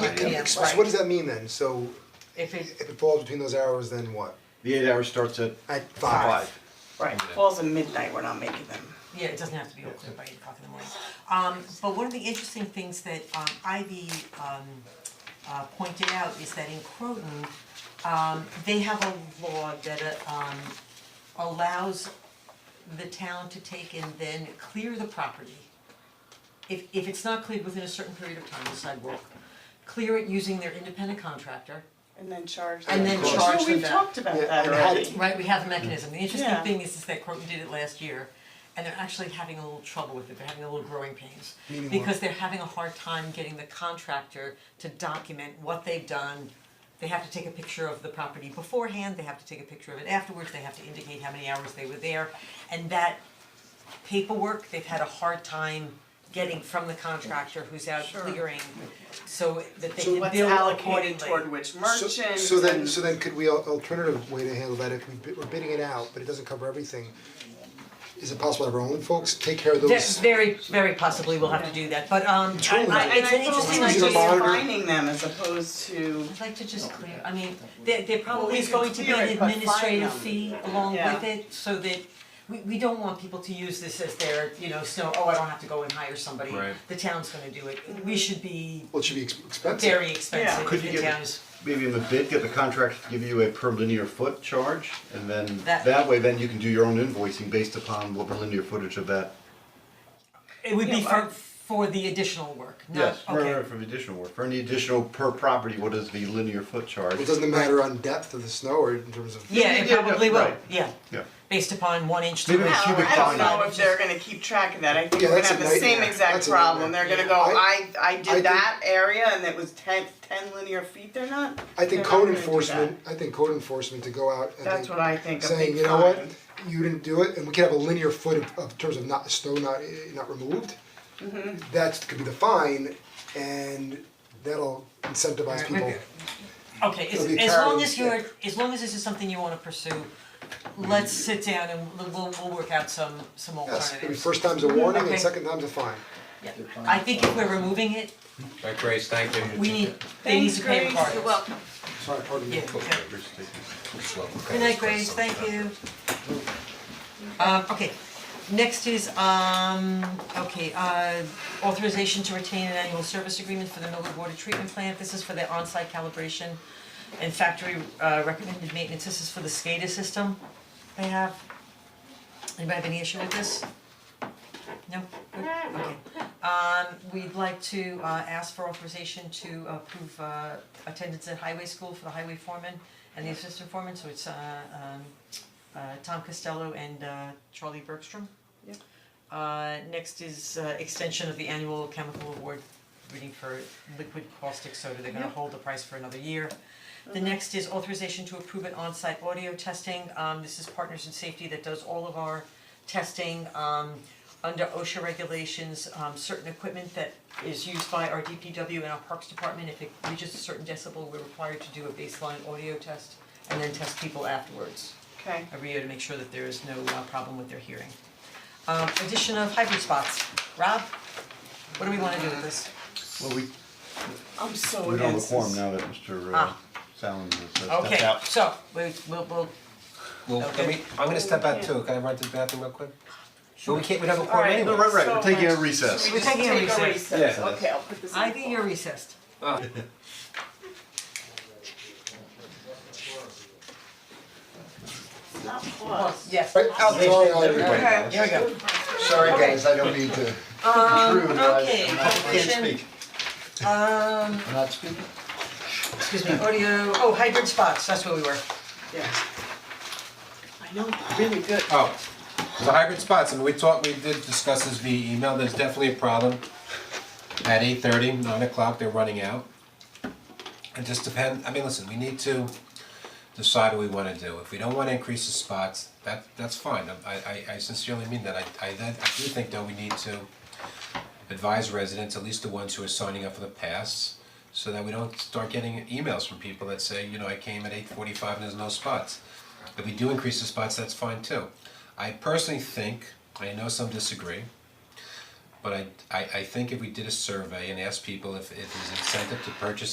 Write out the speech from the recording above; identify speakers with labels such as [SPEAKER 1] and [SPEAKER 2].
[SPEAKER 1] Right, Uh, yeah.
[SPEAKER 2] PM,
[SPEAKER 1] So
[SPEAKER 2] right.
[SPEAKER 1] what does that mean then? So
[SPEAKER 2] If
[SPEAKER 1] if
[SPEAKER 2] it,
[SPEAKER 1] it falls between those hours, then what?
[SPEAKER 3] The eight hour starts at
[SPEAKER 1] At five?
[SPEAKER 3] five.
[SPEAKER 4] Right, falls at midnight, we're not making them.
[SPEAKER 2] yeah, it doesn't have to be open by eight o'clock in the morning. Um, but one of the interesting things that um Ivy um uh pointed out is that in Croton, um they have a law that uh, um allows the town to take and then clear the property. If if it's not cleared within a certain period of time, the sidewalk, clear it using their independent contractor.
[SPEAKER 4] And then charge them.
[SPEAKER 2] And then charge
[SPEAKER 4] No,
[SPEAKER 2] them
[SPEAKER 4] we've
[SPEAKER 2] back.
[SPEAKER 4] talked about
[SPEAKER 1] Yeah,
[SPEAKER 4] that
[SPEAKER 1] and how-
[SPEAKER 4] already.
[SPEAKER 2] Right, we have a mechanism. The interesting
[SPEAKER 4] Yeah.
[SPEAKER 2] thing is, is that Croton did it last year, and they're actually having a little trouble with it, they're having a little growing pains.
[SPEAKER 1] Meaning what?
[SPEAKER 2] Because they're having a hard time getting the contractor to document what they've done. They have to take a picture of the property beforehand, they have to take a picture of it afterwards, they have to indicate how many hours they were there. And that paperwork, they've had a hard time getting from the contractor who's out
[SPEAKER 4] Sure.
[SPEAKER 2] clearing, so that they
[SPEAKER 4] So
[SPEAKER 2] can
[SPEAKER 4] what's
[SPEAKER 2] bill
[SPEAKER 4] allocated
[SPEAKER 2] accordingly.
[SPEAKER 4] toward which
[SPEAKER 1] So-
[SPEAKER 4] merchant and.
[SPEAKER 1] So then, so then could we, al- alternative way to handle that, if we bid- we're bidding it out, but it doesn't cover everything, is it possible to have our own folks take care of
[SPEAKER 2] Ve-
[SPEAKER 1] those?
[SPEAKER 2] Very, very possibly we'll have to do that, but um, I-
[SPEAKER 4] I,
[SPEAKER 2] I, it's an interesting
[SPEAKER 1] Is it
[SPEAKER 2] idea.
[SPEAKER 1] a
[SPEAKER 4] I
[SPEAKER 1] monitor?
[SPEAKER 4] just finding them as opposed to,
[SPEAKER 2] I'd like to just clear, I mean, there, there probably
[SPEAKER 4] we
[SPEAKER 2] is
[SPEAKER 4] can
[SPEAKER 2] going to be
[SPEAKER 4] clear
[SPEAKER 2] an
[SPEAKER 4] it, but fine
[SPEAKER 2] administrative
[SPEAKER 4] them.
[SPEAKER 2] fee along
[SPEAKER 4] Yeah.
[SPEAKER 2] with it, so that we, we don't want people to use this as their, you know, snow, oh, I don't have to go and hire somebody,
[SPEAKER 3] Right.
[SPEAKER 2] the town's gonna do it. We should be
[SPEAKER 1] Well, it should be ex- expensive.
[SPEAKER 2] very expensive
[SPEAKER 3] Could
[SPEAKER 2] if
[SPEAKER 3] you
[SPEAKER 2] the
[SPEAKER 3] give-
[SPEAKER 2] town is,
[SPEAKER 3] Maybe in the bid, get the contract to give you a per linear foot charge, and then
[SPEAKER 2] That-
[SPEAKER 3] that way, then you can do your own invoicing based upon what the linear footage of that.
[SPEAKER 2] it would be
[SPEAKER 4] Yeah,
[SPEAKER 2] for,
[SPEAKER 4] but-
[SPEAKER 2] for the additional work, not,
[SPEAKER 3] Yes, for
[SPEAKER 2] okay,
[SPEAKER 3] for the additional work, for any additional per property, what is the linear foot charge?
[SPEAKER 1] Well, doesn't it matter on depth of the snow or in terms of?
[SPEAKER 2] yeah,
[SPEAKER 3] Yeah,
[SPEAKER 2] it
[SPEAKER 3] yeah, yeah,
[SPEAKER 2] probably will,
[SPEAKER 3] right.
[SPEAKER 2] yeah,
[SPEAKER 3] Yeah,
[SPEAKER 2] based upon one inch to
[SPEAKER 3] Maybe
[SPEAKER 2] an
[SPEAKER 3] it's
[SPEAKER 2] hour.
[SPEAKER 3] cubic
[SPEAKER 4] I don't know
[SPEAKER 3] fine.
[SPEAKER 4] if they're gonna keep track of that, I think
[SPEAKER 1] Yeah,
[SPEAKER 4] we're gonna
[SPEAKER 1] that's a
[SPEAKER 4] have the same
[SPEAKER 1] nightmare.
[SPEAKER 4] exact
[SPEAKER 1] That's a
[SPEAKER 4] problem, they're
[SPEAKER 1] nightmare.
[SPEAKER 4] gonna go, I,
[SPEAKER 1] I-
[SPEAKER 4] I
[SPEAKER 1] I
[SPEAKER 4] did that area and it was ten, ten linear feet, they're not,
[SPEAKER 1] I
[SPEAKER 4] they're
[SPEAKER 1] think
[SPEAKER 4] not
[SPEAKER 1] code
[SPEAKER 4] gonna do
[SPEAKER 1] enforcement, I think code enforcement to go out and
[SPEAKER 4] that. That's
[SPEAKER 1] then
[SPEAKER 4] what I think, a
[SPEAKER 1] saying,
[SPEAKER 4] big
[SPEAKER 1] you know what,
[SPEAKER 4] fine.
[SPEAKER 1] you didn't do it, and we could have a linear foot of, of terms of not, snow not, eh, not removed. That could be the fine, and that'll incentivize people.
[SPEAKER 2] Okay, as
[SPEAKER 1] It'll be
[SPEAKER 2] as long
[SPEAKER 1] parallel
[SPEAKER 2] as you're, as long as this is something you wanna pursue, let's sit down and we'll- we'll we'll work out some some alternatives.
[SPEAKER 1] Yes, I mean, first time's a warning
[SPEAKER 2] Okay.
[SPEAKER 1] and second time's a fine.
[SPEAKER 2] Yeah. I think if we're removing it,
[SPEAKER 5] Right, Grace, thank you.
[SPEAKER 2] we need, they need to pay the
[SPEAKER 4] Thanks, Grace.
[SPEAKER 2] parties.
[SPEAKER 4] You're welcome.
[SPEAKER 1] Sorry, pardon me.
[SPEAKER 2] Yeah, okay. Good night, Grace, thank you. Um, okay, next is, um, okay, uh, authorization to retain an annual service agreement for the Millwood Water Treatment Plant. This is for the on-site calibration and factory uh, recommended maintenance. This is for the SCADA system they have. Anybody have any issue with this? No? Good, okay. Um, we'd like to uh ask for authorization to approve uh attendance at highway school for the highway foreman and the assistant foreman, so it's uh um uh Tom Costello and uh Charlie Bergstrom.
[SPEAKER 4] Yep.
[SPEAKER 2] Uh, next is uh extension of the annual chemical award reading for liquid caustic soda, they're gonna
[SPEAKER 4] Yep. Uh-huh.
[SPEAKER 2] hold the price for another year. The next is authorization to approve an on-site audio testing, um this is Partners in Safety that does all of our testing, um under OSHA regulations, um certain equipment that is used by our DPW and our Parks Department, if it reaches a certain decibel, we're required to do a baseline audio test and then test people afterwards
[SPEAKER 4] Okay,
[SPEAKER 2] every year to make sure that there is no uh problem with their hearing. Um addition of hybrid spots, Rob, what do we wanna do with this?
[SPEAKER 3] Well, we,
[SPEAKER 4] I'm so
[SPEAKER 3] we don't have a
[SPEAKER 4] against this.
[SPEAKER 3] quorum now that Mr. uh,
[SPEAKER 2] Ah.
[SPEAKER 3] Fallon has uh, stepped out.
[SPEAKER 2] Okay, so we we'll we'll
[SPEAKER 5] Well, can we, I'm gonna step out too, can I run to the bathroom real quick? Well, we can't, we don't have a
[SPEAKER 4] All
[SPEAKER 5] quorum
[SPEAKER 4] right,
[SPEAKER 3] No,
[SPEAKER 5] anyway.
[SPEAKER 3] right, right,
[SPEAKER 4] So
[SPEAKER 3] we're taking a
[SPEAKER 4] much.
[SPEAKER 3] recess.
[SPEAKER 4] We just
[SPEAKER 2] taking a
[SPEAKER 4] take a
[SPEAKER 2] recess.
[SPEAKER 4] recess,
[SPEAKER 5] Yeah.
[SPEAKER 4] okay, I'll put this in.
[SPEAKER 2] I think you're recessed.
[SPEAKER 5] Ah.
[SPEAKER 4] Not plus.
[SPEAKER 2] Yes.
[SPEAKER 1] Right, out the door, out of
[SPEAKER 3] Everybody
[SPEAKER 1] here.
[SPEAKER 3] knows.
[SPEAKER 4] Okay.
[SPEAKER 2] Here we go.
[SPEAKER 3] Sorry,
[SPEAKER 2] Okay.
[SPEAKER 3] guys, I don't mean to intrude, I
[SPEAKER 2] okay,
[SPEAKER 3] I can't
[SPEAKER 2] motion.
[SPEAKER 3] speak.
[SPEAKER 2] Um,
[SPEAKER 3] I'm not speaking.
[SPEAKER 2] excuse me, audio, oh, hybrid spots, that's where we were.
[SPEAKER 4] Yeah. I know, really good.
[SPEAKER 5] Oh, the hybrid spots, I mean, we talked, we did discuss this via email, there's definitely a problem. At eight thirty, nine o'clock, they're running out. It just depend, I mean, listen, we need to decide what we wanna do, if we don't wanna increase the spots, that, that's fine, I, I, I sincerely mean that, I, I, I do think though we need to advise residents, at least the ones who are signing up for the pass, so that we don't start getting emails from people that say, you know, I came at eight forty-five and there's no spots. If we do increase the spots, that's fine too. I personally think, I know some disagree, but I, I, I think if we did a survey and asked people if, if there's incentive to purchase